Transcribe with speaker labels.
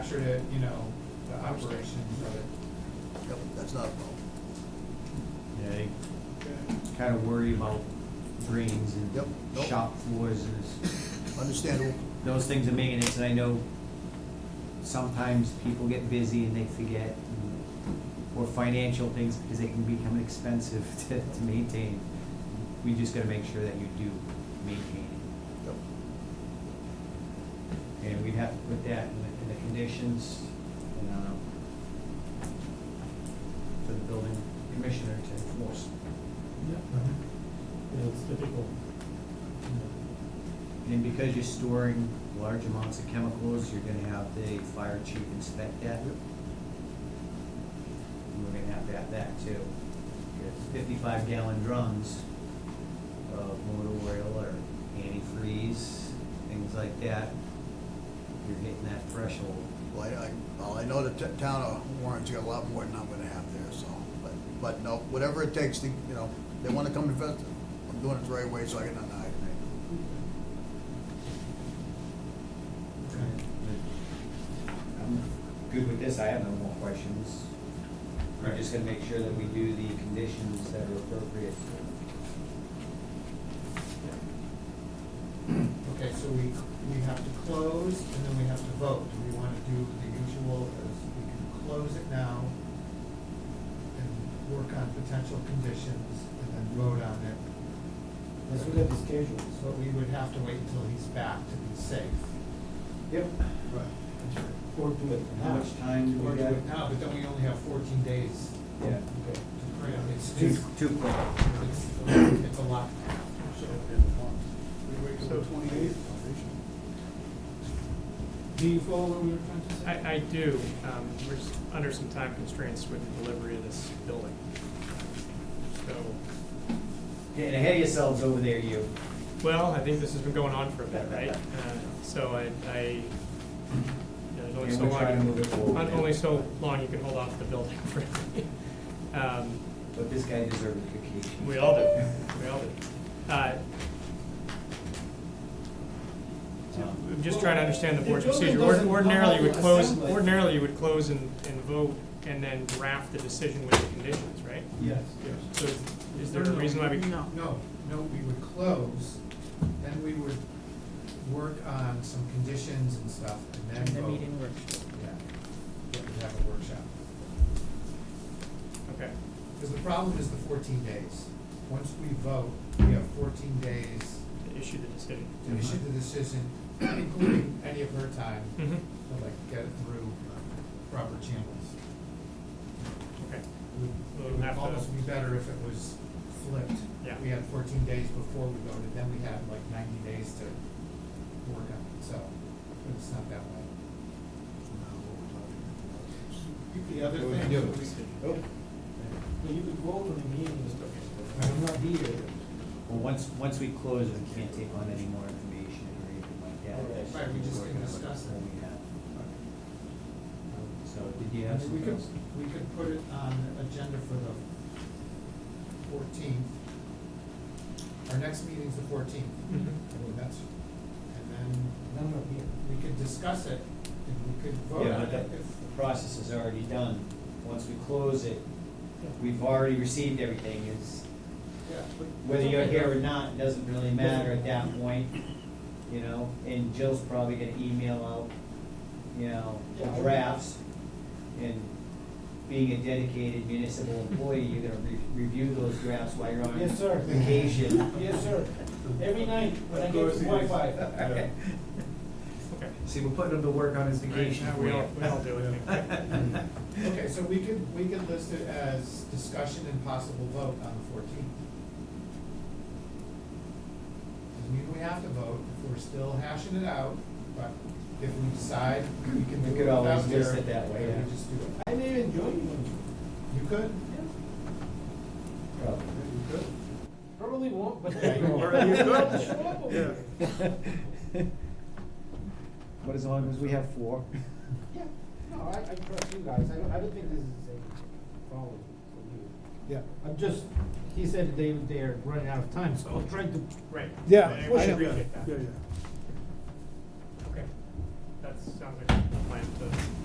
Speaker 1: administrative, you know, the operations of it.
Speaker 2: Yep, that's not a problem.
Speaker 3: Yeah, they kinda worry about drains
Speaker 2: Yep,
Speaker 3: and
Speaker 2: nope.
Speaker 3: shop floors and it's-
Speaker 2: Understandable.
Speaker 3: those things of maintenance, and I know sometimes people get busy and they forget, and- or financial things, because they can become expensive to, to maintain. We just gotta make sure that you do maintain
Speaker 2: Yep.
Speaker 3: it, and we'd have to put that in the, in the conditions, um, for the building commissioner to enforce.
Speaker 4: Yeah, yeah, it's typical.
Speaker 3: And because you're storing large amounts of chemicals, you're gonna have the fire chief inspect that.
Speaker 2: Yep.
Speaker 3: And We're gonna have to have that too. Fifty-five gallon drums of motor oil or antifreeze, things like that. You're hitting that threshold.
Speaker 2: Well, I, I- well, I know the t- town of Warren's got a lot more than I'm gonna have there, so, but, but no, whatever it takes to, you know, they wanna come and visit, I'm doing it the right way, so I can deny it.
Speaker 3: I'm good with this, I have no more questions. We're just gonna make sure that we do the conditions that are appropriate.
Speaker 1: Okay, so we, we have to close and then we have to vote. Do we wanna do the usual, as we can close it now and work on potential conditions and then vote on it?
Speaker 4: Let's look at the schedules.
Speaker 1: But we would have to wait until he's back to be safe.
Speaker 3: Yep.
Speaker 1: Right.
Speaker 4: Or do it
Speaker 3: How much time do
Speaker 1: Or
Speaker 3: we
Speaker 1: do
Speaker 3: got?
Speaker 1: it now, but then we only have fourteen days
Speaker 3: Yeah.
Speaker 4: Okay.
Speaker 1: to print. It's,
Speaker 3: Too,
Speaker 1: it's,
Speaker 3: too quick.
Speaker 1: it's it's a lot.
Speaker 2: So twenty-eighth?
Speaker 1: Do you follow what we were trying to say?
Speaker 5: I, I do, um, we're just under some time constraints with the delivery of this building. So,
Speaker 3: Getting ahead of yourselves over there, you.
Speaker 5: well, I think this has been going on for a bit, right? Uh, So I, I, you know, there's only
Speaker 3: And
Speaker 5: so
Speaker 3: we're trying to move it
Speaker 5: long,
Speaker 3: forward.
Speaker 5: on- only so long you can hold off the building for, um,
Speaker 3: But this guy deserves a vacation.
Speaker 5: we all do, we all do. Uh,
Speaker 3: Um,
Speaker 5: I'm just trying to understand the board's
Speaker 1: The building
Speaker 5: procedure. Ord-
Speaker 1: doesn't come
Speaker 5: Ordinarily,
Speaker 1: up
Speaker 5: you would
Speaker 1: with
Speaker 5: close,
Speaker 1: assembly.
Speaker 5: ordinarily, you would close and, and vote and then draft the decision with the conditions, right?
Speaker 1: Yes.
Speaker 5: So is- is there a reason why we?
Speaker 6: No.
Speaker 1: No, no, we would close, then we would work on some conditions and stuff, and then
Speaker 6: The
Speaker 1: vote.
Speaker 6: meeting workshop.
Speaker 1: Yeah, yeah, we'd have a workshop.
Speaker 5: Okay,
Speaker 1: Because the problem is the fourteen days. Once we vote, we have fourteen days
Speaker 5: to issue the decision.
Speaker 1: to issue the decision, including any of her time,
Speaker 5: Mm-hmm,
Speaker 1: to like get it through proper channels.
Speaker 5: okay,
Speaker 1: It would- It
Speaker 5: We'll
Speaker 1: would
Speaker 5: have to-
Speaker 1: almost be better if it was flipped.
Speaker 5: Yeah.
Speaker 1: We had fourteen days before we voted, then we had like ninety days to work on it, so, but it's not that way. The other
Speaker 4: What we
Speaker 1: thing.
Speaker 4: do.
Speaker 1: Oh.
Speaker 4: But you could vote on the meeting, I'm not here.
Speaker 3: Well, once, once we close, we can't take on any more information or anything like that. That's-
Speaker 1: Right, we just can discuss it.
Speaker 3: We have.
Speaker 1: Okay.
Speaker 3: So did you
Speaker 1: I
Speaker 3: have
Speaker 1: mean, We
Speaker 3: something
Speaker 1: could,
Speaker 3: else?
Speaker 1: we could put it on the agenda for the fourteenth. Our next meeting's the fourteenth.
Speaker 5: Mhm.
Speaker 1: I mean, that's, and then
Speaker 4: I'm not here.
Speaker 1: we could discuss it and we could vote
Speaker 3: Yeah,
Speaker 1: on
Speaker 3: but
Speaker 1: it
Speaker 3: the,
Speaker 1: if,
Speaker 3: the process is already done. Once we close it,
Speaker 4: Yeah.
Speaker 3: we've already received everything. It's,
Speaker 1: yeah. but-
Speaker 3: whether you're here or not, it doesn't really matter at that point, you know? And Jill's probably gonna email out, you know, the
Speaker 1: Yeah.
Speaker 3: drafts. And being a dedicated municipal employee, you're gonna re- review those drafts while you're on
Speaker 4: Yes, sir.
Speaker 3: vacation.
Speaker 4: Yes, sir. Every night when I get Wi-Fi.
Speaker 3: Okay.
Speaker 5: okay.
Speaker 3: See, we're putting him to work on his vacation
Speaker 5: Right,
Speaker 3: for
Speaker 5: we
Speaker 3: you.
Speaker 5: all- we all do it.
Speaker 1: Okay, so we could, we could list it as discussion and possible vote on the fourteenth. Doesn't mean we have to vote, if we're still hashing it out, but if we decide we can
Speaker 3: We
Speaker 1: do
Speaker 3: could
Speaker 1: it without
Speaker 3: always
Speaker 1: her,
Speaker 3: list it that way,
Speaker 1: then
Speaker 3: yeah.
Speaker 1: we just do it.
Speaker 4: I may enjoy you.
Speaker 1: You could, you could.
Speaker 3: Probably.
Speaker 4: Probably won't, but.
Speaker 1: Yeah, you
Speaker 3: Or
Speaker 1: are.
Speaker 3: you could.
Speaker 4: Show up over there.
Speaker 3: But as long as we have four.
Speaker 4: Yeah, no, I, I trust you guys, I don't, I don't think this is a problem for you.
Speaker 1: Yeah.
Speaker 4: I'm just, he said they, they're running out of time, so I'm trying to.
Speaker 5: Right.
Speaker 7: Yeah,
Speaker 5: I-
Speaker 7: push
Speaker 5: I
Speaker 7: it.
Speaker 5: appreciate that.
Speaker 7: Yeah, yeah.
Speaker 5: Okay, that sounds like a plan to